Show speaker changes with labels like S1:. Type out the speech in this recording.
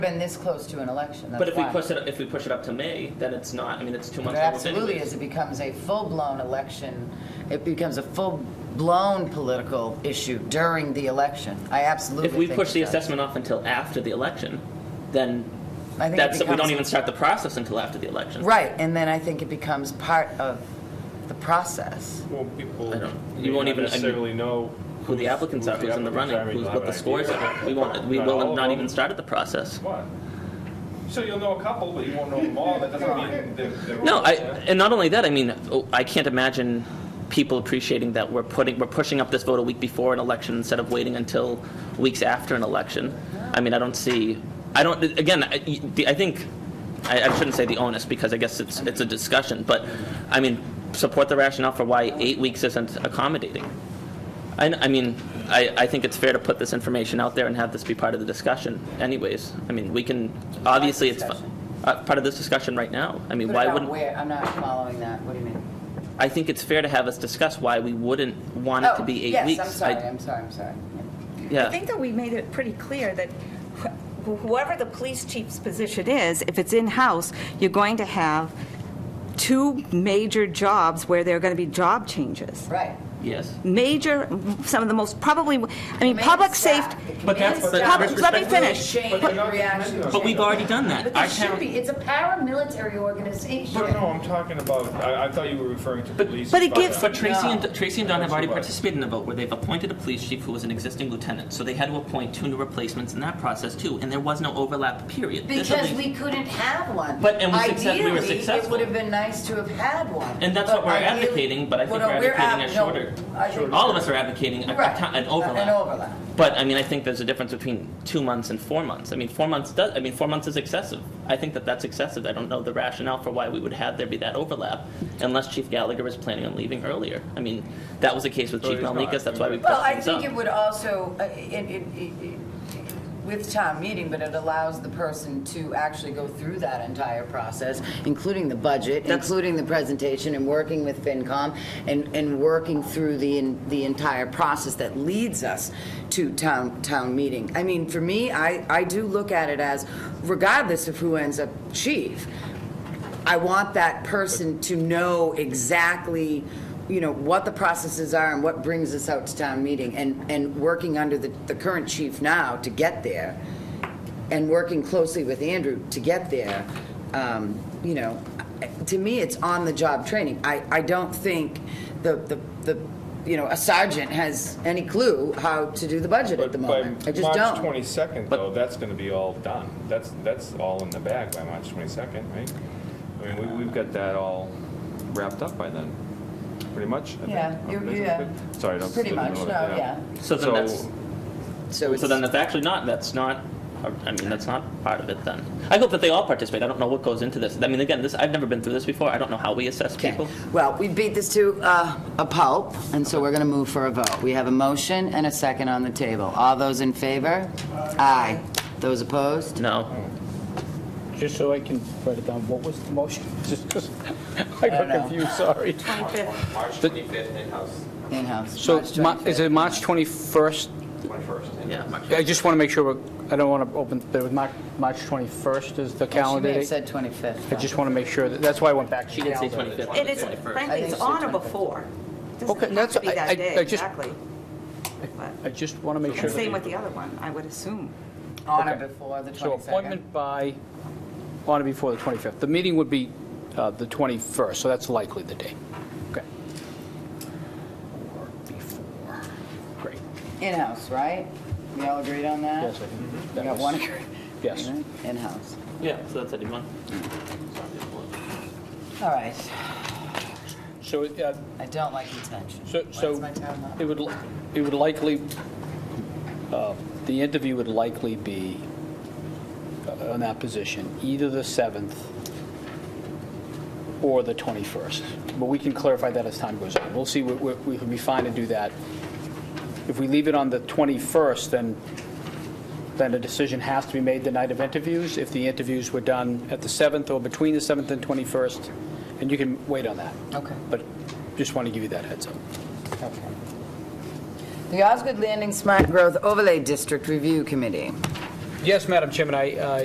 S1: been this close to an election,
S2: But
S1: that's
S2: if we
S1: why.
S2: push it, if we push it up to May, then it's not, I mean, it's two
S1: It
S2: months. almost
S1: absolutely
S2: anyways.
S1: is, it becomes a full-blown election, it becomes a full-blown political issue during the election. I absolutely
S2: If we
S1: think
S2: push
S1: it
S2: the
S1: does.
S2: assessment off until after the election, then
S1: I think it
S2: that's, we
S1: becomes-
S2: don't even start the process until after the election.
S1: Right, and then I think it becomes part of the process.
S3: Well, people.
S2: I don't-
S3: may
S2: you won't
S3: not
S2: even- I mean,
S3: Necessarily know.
S2: Who the applicants are, who's in the running, who's, what the scores are. We won't, we
S3: Not
S2: will
S3: all
S2: have
S3: of
S2: not
S3: them.
S2: even started the process.
S3: What? So you'll know a couple, but you won't know them all, that doesn't mean they're. they're
S2: No,
S3: all
S2: I,
S3: there.
S2: and not only that, I mean, oh, I can't imagine people appreciating that we're putting, we're pushing up this vote a week before an election instead of waiting until weeks after an election. I mean, I don't see, I don't, again, I the- I think, I I shouldn't say the onus, because I guess it's, it's a discussion, but, I mean, support the rationale for why eight weeks isn't accommodating. I, I mean, I, I think it's fair to put this information out there and have this be part of the discussion anyways. I mean, we can, obviously, it's fu-
S1: discussion?
S2: uh, part of this discussion right now. I mean,
S1: Put it
S2: why
S1: out
S2: wouldn't?
S1: where- I'm not following that, what do you mean?
S2: I think it's fair to have us discuss why we wouldn't want it to be eight weeks.
S1: Oh, yes, I'm
S2: I-
S1: sorry, I'm sorry, I'm sorry.
S2: Yeah.
S4: I think that we made it pretty clear that wh- whoever the police chief's position is, if it's in-house, you're going to have two major jobs where there are going to be job changes.
S1: Right.
S2: Yes.
S4: Major, some of the most, probably, I mean,
S1: Command
S4: public
S1: staff.
S4: safety,
S1: The
S2: But that's-
S1: command
S2: but
S1: staff
S2: with
S1: is
S2: respect- Let me
S4: finish.
S1: Chain
S3: But they're not
S1: reaction.
S3: commanding us.
S2: But we've already done that.
S5: But
S2: Our
S5: there should
S2: town-
S5: be, it's a paramilitary organization.
S3: But no, I'm talking about, I, I thought you were referring to
S2: But-
S3: police.
S4: but it
S3: fire.
S4: gives-
S2: But Tracy
S1: No.
S2: and, Tracy and Don have already
S3: Right.
S2: participated in a vote where they've appointed a police chief who was an existing lieutenant. So they had to appoint two new replacements in that process too, and there was no overlap period. This at
S1: Because
S2: least-
S1: we couldn't have one.
S2: But- and we success- we were
S1: Ideally, it
S2: successful.
S1: would have been nice to have had one.
S2: And that's
S1: But
S2: what we're
S1: ideally-
S2: advocating, but I
S1: Well,
S2: think
S1: no,
S2: we're
S1: we're
S2: advocating
S1: ad-
S2: a
S1: no,
S2: shorter-
S1: I think-
S2: All of us are advocating a-
S1: Right,
S2: a ti- an
S1: An
S2: overlap.
S1: overlap.
S2: But, I mean, I think there's a difference between two months and four months. I mean, four months does, I mean, four months is excessive. I think that that's excessive. I don't know the rationale for why we would have there be that overlap unless Chief Gallagher was planning on leaving earlier. I mean, that was the case with
S3: So
S2: Chief
S3: he's not.
S2: Malnikas, that's why we
S1: Well,
S2: pushed
S1: I
S2: things
S1: think it
S2: up.
S1: would also, uh, it, it, it- it- with town meeting, but it allows the person to actually go through that entire process, including the budget,
S2: That's-
S1: including the presentation, and working with FinCom, and, and working through the, en- the entire process that leads us to town, town meeting. I mean, for me, I, I do look at it as, regardless of who ends up chief, I want that person to know exactly, you know, what the processes are and what brings us out to town meeting, and, and working under the, the current chief now to get there, and working closely with Andrew to get there, um, you know, to me, it's on-the-job training. I, I don't think the, the, the, you know, a sergeant has any clue how to do the budget at
S3: But
S1: the
S3: by
S1: moment. I just
S3: March
S1: don't.
S3: twenty-second,
S2: But-
S3: though, that's gonna be all done. That's, that's all in the bag by March twenty-second, right? I mean, we, we've got that all wrapped up by then, pretty much, I think.
S1: Yeah, you-
S3: Isn't it?
S1: yeah.
S3: Sorry, don't.
S1: Pretty much, no, yeah.
S2: So then that's,
S1: So it's,
S2: so then that's actually not, that's not, I mean, that's not part of it then. I hope that they all participate. I don't know what goes into this. I mean, again, this, I've never been through this before. I don't know how we assess
S1: okay.
S2: people.
S1: Well, we beat this to uh, a pulp, and so we're going to move for a vote. We have a motion and a second on the table. All those in favor? Aye. Those opposed?
S2: No.
S6: Just so I can write it down, what was the motion? Just 'cause I
S1: don't
S6: got
S1: know.
S6: confused, sorry.
S4: 25th.
S7: March 25th in-house,
S1: In-house.
S6: So
S1: March
S6: Ma- is
S1: 25th.
S6: it March 21st?
S7: 21st.
S2: Yeah, March
S6: I just want to make sure, we're- I don't want to open, there was Mar- March 21st is the
S1: She
S6: calendar
S1: may have
S6: date.
S1: said 25th.
S6: I just want to make sure, that- that's why I went back. to
S2: She did say
S6: calendar.
S2: 25th.
S4: It is,
S2: 21st.
S4: frankly,
S1: I
S4: it's
S1: think
S4: on or
S1: it's
S4: before. It
S6: Okay,
S4: doesn't have
S6: that's-
S4: to be
S6: I- I-
S4: that day,
S6: I just-
S4: exactly. But-
S6: I just want to make sure.
S4: And same
S6: that-
S4: with the other one, I would assume.
S1: On or
S6: Okay.
S1: before the 22nd.
S6: So appointment by, on or before the 25th. The meeting would be uh, the 21st, so that's likely the day. Okay. Or before, great.
S1: In-house, right? We all agreed on that?
S6: Yes, I think
S1: We
S6: that
S1: got
S6: was-
S1: one agreement?
S6: Yes.
S1: In-house.
S2: Yeah, so that's anyone.
S1: All right.
S6: So uh,
S1: I don't like intention.
S6: So, so
S1: What's my time up?
S6: it would, li- it would likely, uh, the interview would likely be uh, on that position, either the 7th or the 21st. But we can clarify that as time goes on. We'll see, we, we we can be fine to do that. If we leave it on the 21st, then, then a decision has to be made the night of interviews. If the interviews were done at the 7th or between the 7th and 21st, and you can wait on that.
S1: Okay.
S6: But just want to give you that heads up.
S1: Okay. The Osgood Landing Smart Growth Overlay District Review Committee.
S6: Yes, Madam Chairman, I, uh, I